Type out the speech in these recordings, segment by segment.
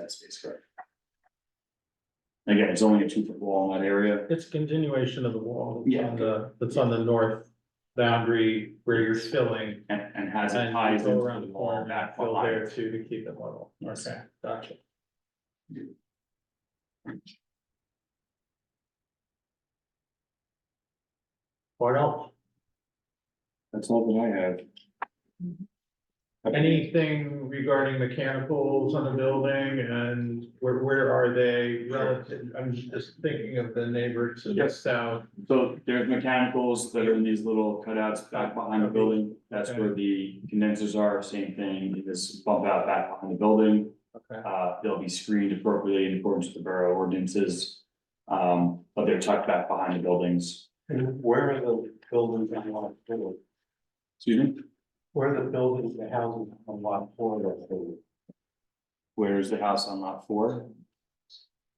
that space, correct? Again, it's only a two foot wall in that area, It's a continuation of the wall. that's Yeah. On the, that's on the north boundary where you're filling. and, and has it And ties you go into around the the wall corner back and fill there behind. too to keep it level. Yes. Okay, gotcha. What else? That's all that I have. Anything regarding mechanicals on the building and where, where are they relative? I'm just thinking of the neighbor to the Yep. south. So there's mechanicals that are in these little cutouts back behind the building, that's where the condensers are, same thing, you just bump out back behind the building. Okay. Uh, they'll be screened appropriately in accordance with the borough ordinances. Um, but they're tucked back behind the buildings. And where are the buildings on lot four? Excuse me, Where are the buildings, the houses on lot four that they? where's the house on lot four?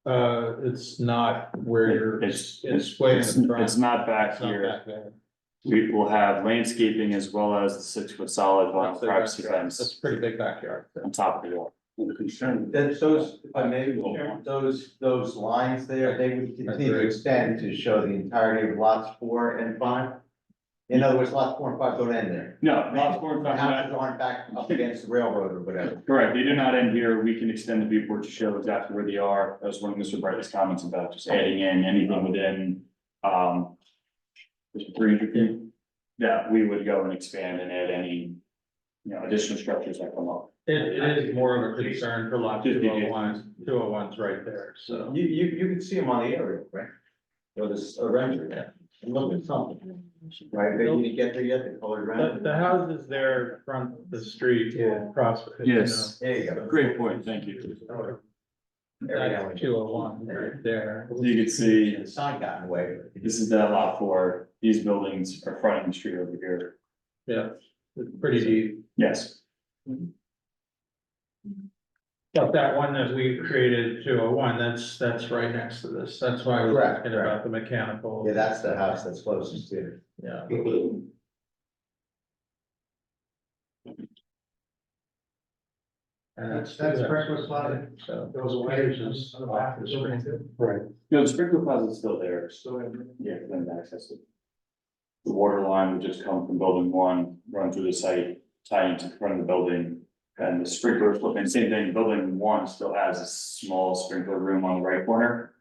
Uh, it's not where you're. It's, it's, It's way in it's the front. it's not back It's not here. back there. We will have landscaping as well as the six foot solid vinyl That's their privacy backyard. fence That's a pretty big backyard. on top of the wall. The concern. That those, if I may, Chair, those, those lines there, they would continue to extend to show the entirety of lots four and five. In other words, lots four and five don't end there. No, lot four and The five, not- houses aren't back up against the railroad or whatever. Correct, they do not end here, we can extend the viewport to show exactly where they are, that was one of Mr. Bright's comments about just adding in anything within, um. Three hundred feet, that we would go and expand and add any, you know, additional structures that come up. It is more of a concern for lot Just two be- oh ones, two oh ones right there, so. You, you, you can see them on the aerial, right? Or this, a render, yeah, and look at something. Right, they didn't get there yet, the colored The, the render. houses there from the street Yeah. across. Yes. There you go. Great point, thank you. There we That's go. two oh one right there. You can see, The sign got in the way. this is that lot four, these buildings are fronting the street over here, Yeah, it's pretty deep. yes, But that one that we created, two oh one, that's, that's right next to this. That's why I was Correct, asking correct. about the mechanical. Yeah, that's the house that's closest to it. Yeah. And that's. That's Brentwood Plaza. So, Those wires is on the back of the building too. no, the sprinkler plaza's still there, So in Yeah, then access it. The water line would just come from building one, run through the site, tie into the front of the building. And the sprinkler, and same thing, building one still has a small sprinkler room on the right corner.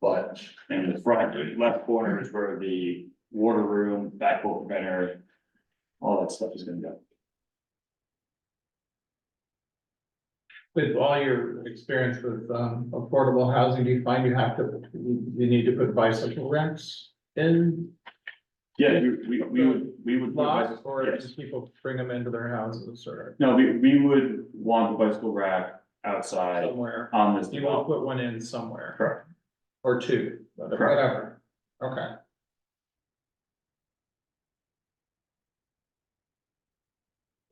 But in the front, the left corner is where the water room, backflow preventer. All that stuff is gonna go. with all your experience with um affordable housing, do you find you have to, you you need to put bicycle racks in Yeah, we, we, we would, we would. lots? Or Yes. just people bring them into their houses or No, we, we would want the bicycle rack outside somewhere? on this. You development. want to put one in somewhere? Correct. Or two, whatever. Okay.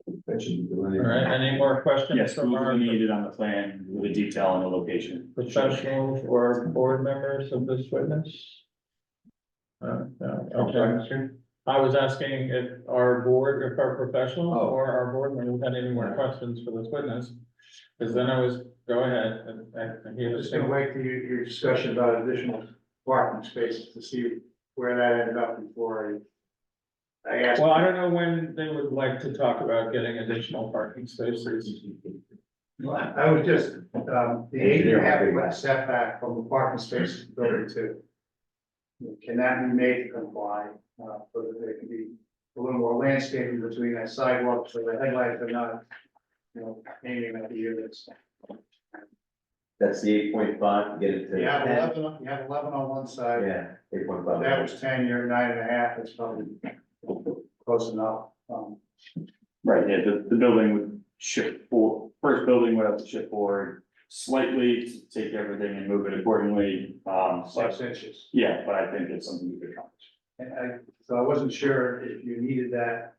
All right, any more questions Yes, we from our would need it on the plan with a detail and a location. professionals or board members of this witness? Uh, no, okay. I was asking if our board, if our professionals Oh. or our board members had any more questions for this witness. Cause then I was, go ahead and, and- and he I'm was just gonna wait to your, your discussion about additional parking spaces to see where that ended up before I. I asked, Well, I don't know when they would like to talk about getting additional parking spaces. I was just, um, the eight and a half foot setback from the parking space to building two. Can that be made to comply, uh, so that there can be a little more landscaping between that sidewalk, so the headlights are not, you know, aiming at the units. That's the eight point five, get it to. You have 10. eleven, on- you have eleven on one side, Yeah, eight point if five. that was ten, you're nine and a half, it's probably close enough. Um, Right, yeah, the, the building would shift for, first building would have to shift forward slightly to take everything and move it accordingly. Um, six but, inches, yeah, but I think it's something you could accomplish. and I, so I wasn't sure if you needed that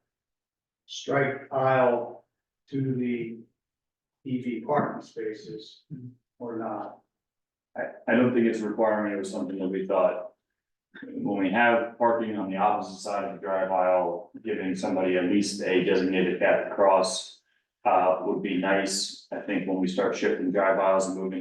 striped aisle to the EV parking spaces or not. I, I don't think it's a requirement, it was something that we thought. When we have parking on the opposite side of the drive aisle, giving somebody at least a designated path across. Uh, would be nice, I think when we start shifting drive aisles and moving